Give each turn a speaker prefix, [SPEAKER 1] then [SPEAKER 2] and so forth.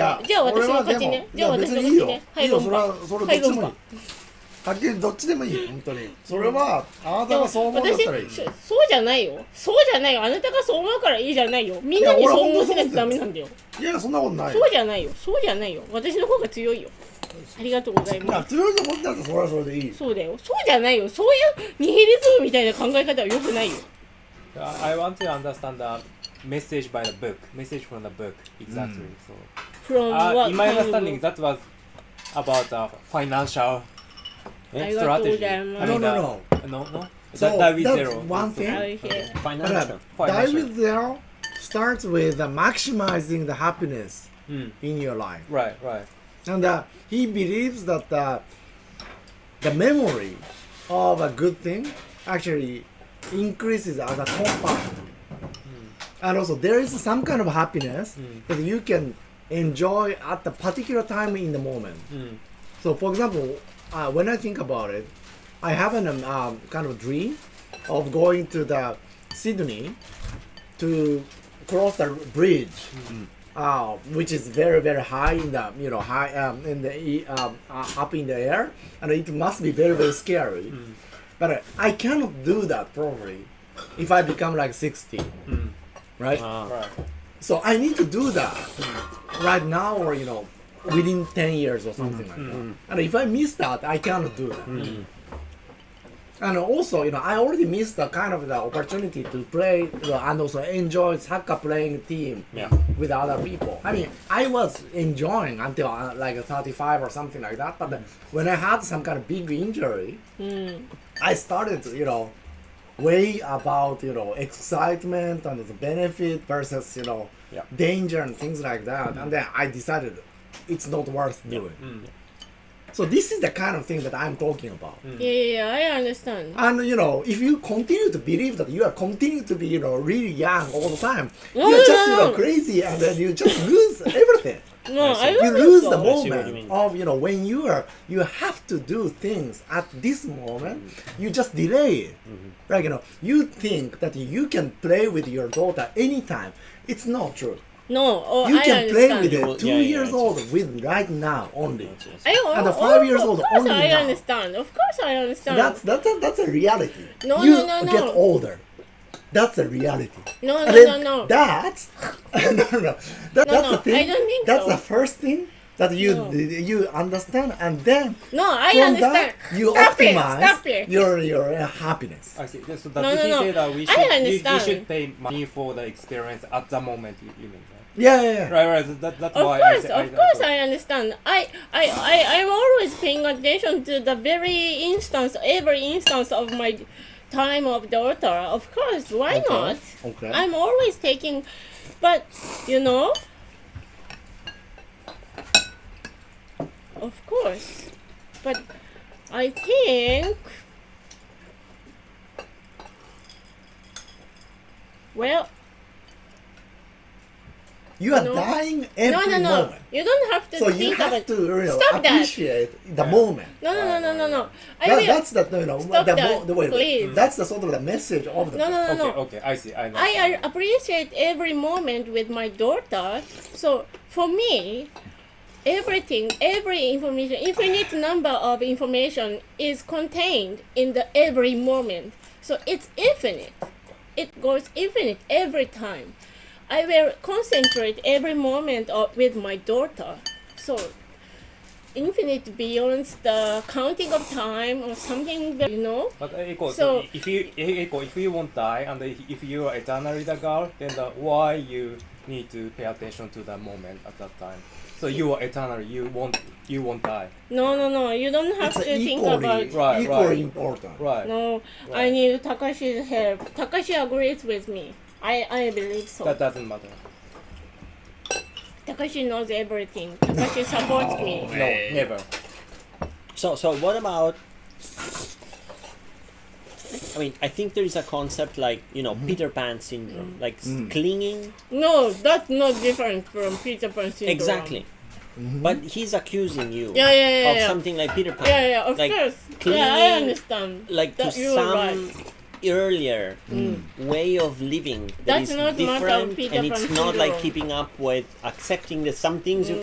[SPEAKER 1] や
[SPEAKER 2] じゃあ私
[SPEAKER 1] 俺は
[SPEAKER 2] はこっち
[SPEAKER 1] でも
[SPEAKER 2] ねじゃあ
[SPEAKER 1] いや別
[SPEAKER 2] 私は
[SPEAKER 1] に
[SPEAKER 2] こ
[SPEAKER 1] いい
[SPEAKER 2] っち
[SPEAKER 1] よ
[SPEAKER 2] ね
[SPEAKER 1] いいよそれは
[SPEAKER 2] はい
[SPEAKER 1] それど
[SPEAKER 2] は
[SPEAKER 1] っ
[SPEAKER 2] い
[SPEAKER 1] ちで
[SPEAKER 2] ゴン
[SPEAKER 1] もいい
[SPEAKER 2] パ
[SPEAKER 1] はっきりどっちでもいい本当にそれはあなたがそう思うんだっ
[SPEAKER 2] 私
[SPEAKER 1] たらいい
[SPEAKER 2] そそうじゃないよそうじゃないよあなたがそう思うからいいじゃないよみんなに
[SPEAKER 1] いや
[SPEAKER 2] そう
[SPEAKER 1] 俺
[SPEAKER 2] 思
[SPEAKER 1] は
[SPEAKER 2] ってないとダ
[SPEAKER 1] 本当
[SPEAKER 2] メ
[SPEAKER 1] に
[SPEAKER 2] なんだよ
[SPEAKER 1] いやそんなことないよ
[SPEAKER 2] そうじゃないよそうじゃないよ私の方が強いよありがとうござい
[SPEAKER 1] いや
[SPEAKER 2] ます
[SPEAKER 1] 強いと思ってたらそれはそれでいいよ
[SPEAKER 2] そうだよそうじゃないよそういうニヒリズムみたいな考え方は良くないよ
[SPEAKER 3] Uh, I I want to understand the message by the book, message from the book. Exactly. So,
[SPEAKER 2] from
[SPEAKER 3] uh,
[SPEAKER 2] what
[SPEAKER 3] in my
[SPEAKER 2] kind of-
[SPEAKER 3] understanding, that was about uh, financial
[SPEAKER 2] あり
[SPEAKER 3] eh,
[SPEAKER 2] がとうご
[SPEAKER 3] strategy.
[SPEAKER 2] ざい
[SPEAKER 3] I
[SPEAKER 2] ま
[SPEAKER 3] mean,
[SPEAKER 1] No, no,
[SPEAKER 3] uh, no, no.
[SPEAKER 1] So,
[SPEAKER 3] that, that with
[SPEAKER 1] that's
[SPEAKER 3] zero.
[SPEAKER 1] one
[SPEAKER 3] So,
[SPEAKER 2] す
[SPEAKER 1] thing.
[SPEAKER 2] はいはい
[SPEAKER 3] Financial.
[SPEAKER 4] Die
[SPEAKER 3] Financial.
[SPEAKER 4] with zero starts with uh, maximizing the happiness
[SPEAKER 3] Mm.
[SPEAKER 4] in your life.
[SPEAKER 3] Right, right.
[SPEAKER 4] And uh, he believes that uh, the memory of a good thing actually increases as a compound. And also, there is some kind of happiness that you can enjoy at the particular time in the moment.
[SPEAKER 3] Mm.
[SPEAKER 4] So, for example, uh, when I think about it, I have an um, um, kind of dream of going to the Sydney to cross the bridge, uh, which is very very high in the you know high um, in the e- um, uh, up in the air, and it must be very very scary. But uh, I cannot do that probably if I become like sixty,
[SPEAKER 3] Uh-huh.
[SPEAKER 4] right?
[SPEAKER 3] Right.
[SPEAKER 4] So I need to do that right now, or you know, within ten years or something like that. And if I miss that, I cannot do that. And also, you know, I already missed the kind of the opportunity to play you know, and also enjoy soccer playing team
[SPEAKER 3] Yeah.
[SPEAKER 4] with other people. I mean, I was enjoying until uh, like 35 or something like that. But then when I had some kind of big injury, I started, you know, way about you know excitement and the benefit versus you know
[SPEAKER 3] Yeah.
[SPEAKER 4] danger and things like that. And then I decided it's not worth doing. So this is the kind of thing that I'm talking about.
[SPEAKER 2] Yeah, yeah, yeah, I understand.
[SPEAKER 4] And you know, if you continue to believe that you are continue to be, you know, really young all the time,
[SPEAKER 2] No,
[SPEAKER 4] you're
[SPEAKER 2] no,
[SPEAKER 4] just you know
[SPEAKER 2] no.
[SPEAKER 4] crazy, and then you just lose everything.
[SPEAKER 2] No, I
[SPEAKER 4] You
[SPEAKER 2] don't
[SPEAKER 4] lose
[SPEAKER 2] think
[SPEAKER 4] the
[SPEAKER 2] so.
[SPEAKER 3] I see what you
[SPEAKER 4] moment
[SPEAKER 3] mean.
[SPEAKER 4] of you know when you are you have to do things at this moment.
[SPEAKER 2] Mm-hmm.
[SPEAKER 4] You just delay it. Like you know, you think that you can play with your daughter anytime. It's not true.
[SPEAKER 2] No, oh,
[SPEAKER 4] You
[SPEAKER 2] I
[SPEAKER 4] can play
[SPEAKER 2] understand.
[SPEAKER 4] with
[SPEAKER 3] You will-
[SPEAKER 4] it two
[SPEAKER 3] yeah, yeah,
[SPEAKER 4] years
[SPEAKER 3] it's-
[SPEAKER 4] old with right now only.
[SPEAKER 2] I, oh,
[SPEAKER 4] and the
[SPEAKER 2] oh,
[SPEAKER 4] five years old
[SPEAKER 2] Of course,
[SPEAKER 4] only
[SPEAKER 2] I
[SPEAKER 4] now.
[SPEAKER 2] understand. Of course, I understand.
[SPEAKER 4] That's that's a, that's a reality.
[SPEAKER 2] No,
[SPEAKER 4] you
[SPEAKER 2] no, no, no.
[SPEAKER 4] get older. That's a reality.
[SPEAKER 2] no, no,
[SPEAKER 4] And then
[SPEAKER 2] no, no.
[SPEAKER 4] That, no, no, no. That,
[SPEAKER 2] No,
[SPEAKER 4] that's
[SPEAKER 2] no,
[SPEAKER 4] the thing.
[SPEAKER 2] I don't think
[SPEAKER 4] that's
[SPEAKER 2] so.
[SPEAKER 4] the first thing that you
[SPEAKER 2] No.
[SPEAKER 4] you understand, and then
[SPEAKER 2] no, I
[SPEAKER 4] from
[SPEAKER 2] understand.
[SPEAKER 4] that you
[SPEAKER 2] stop
[SPEAKER 4] optimize
[SPEAKER 2] it. Stop it.
[SPEAKER 4] your your uh, happiness.
[SPEAKER 3] I see. So that
[SPEAKER 2] No,
[SPEAKER 3] did
[SPEAKER 2] no,
[SPEAKER 3] he
[SPEAKER 2] no.
[SPEAKER 3] say that we
[SPEAKER 2] I
[SPEAKER 3] should, you- you,
[SPEAKER 2] understand.
[SPEAKER 3] should pay money for the experience at the moment, you, you mean, right?
[SPEAKER 4] Yeah, yeah, yeah.
[SPEAKER 3] Right, right. so That, that's
[SPEAKER 2] Of
[SPEAKER 3] why I
[SPEAKER 2] course,
[SPEAKER 3] said.
[SPEAKER 2] of course, I understand. I, I, I, I'm always paying attention to the very instance, every instance of my time of daughter. Of course, why not?
[SPEAKER 4] Okay.
[SPEAKER 2] I'm always taking, but you know, of course, but I think. Well,
[SPEAKER 4] you are
[SPEAKER 2] No.
[SPEAKER 4] dying
[SPEAKER 2] no,
[SPEAKER 4] every
[SPEAKER 2] no, no.
[SPEAKER 4] moment.
[SPEAKER 2] You don't have to
[SPEAKER 4] So
[SPEAKER 2] think
[SPEAKER 4] you have
[SPEAKER 2] about
[SPEAKER 4] to you know,
[SPEAKER 2] Stop that.
[SPEAKER 4] appreciate the moment.
[SPEAKER 2] No, no, no, no, no, no. I
[SPEAKER 4] That,
[SPEAKER 2] will.
[SPEAKER 4] that's the you know
[SPEAKER 2] Stop
[SPEAKER 4] the,
[SPEAKER 2] that,
[SPEAKER 4] the wait, wait.
[SPEAKER 2] please.
[SPEAKER 4] That's the sort of the message of the
[SPEAKER 2] no, no, no, no.
[SPEAKER 3] Okay, okay. I see. I know.
[SPEAKER 2] I uh, appreciate every moment with my daughter. So for me, everything, every information, infinite number of information is contained in the every moment. So it's infinite. It goes infinite every time. I will concentrate every moment of, with my daughter. So infinite beyond the counting of time or something, you know?
[SPEAKER 3] But uh, Eiko,
[SPEAKER 2] So-
[SPEAKER 3] so, if you eh, Eiko, if you won't die and if you are eternally the girl, then the, why you need to pay attention to the moment at that time? So you are eternal. You won't. You won't die.
[SPEAKER 2] No, no, no. You don't have
[SPEAKER 4] It's
[SPEAKER 2] to think
[SPEAKER 4] equally
[SPEAKER 2] about.
[SPEAKER 3] Right,
[SPEAKER 4] equally
[SPEAKER 3] right.
[SPEAKER 4] important.
[SPEAKER 3] Right.
[SPEAKER 2] No, I
[SPEAKER 3] Right.
[SPEAKER 2] need Takashi's help. Takashi agrees with me. I, I believe so.
[SPEAKER 3] That doesn't matter.
[SPEAKER 2] Takashi knows everything. Takashi supports me.
[SPEAKER 3] No, never.
[SPEAKER 5] So, so what about? I mean, I think there is a concept like you know Peter Pan syndrome, like s- clinging.
[SPEAKER 2] No, that's not different from Peter Pan syndrome.
[SPEAKER 5] Exactly. But he's accusing you
[SPEAKER 2] Yeah, yeah, yeah,
[SPEAKER 5] of
[SPEAKER 2] yeah.
[SPEAKER 5] something like Peter Pan.
[SPEAKER 2] Yeah, yeah, of
[SPEAKER 5] like,
[SPEAKER 2] course.
[SPEAKER 5] clinging,
[SPEAKER 2] Yeah, I understand.
[SPEAKER 5] Like
[SPEAKER 2] That
[SPEAKER 5] to
[SPEAKER 2] you are
[SPEAKER 5] some
[SPEAKER 2] right. Mm.
[SPEAKER 5] earlier way of living that
[SPEAKER 2] That's
[SPEAKER 5] is
[SPEAKER 2] not much of
[SPEAKER 5] different,
[SPEAKER 2] Peter
[SPEAKER 5] and it's
[SPEAKER 2] Pan
[SPEAKER 5] not like
[SPEAKER 2] syndrome.
[SPEAKER 5] keeping up with accepting that some things you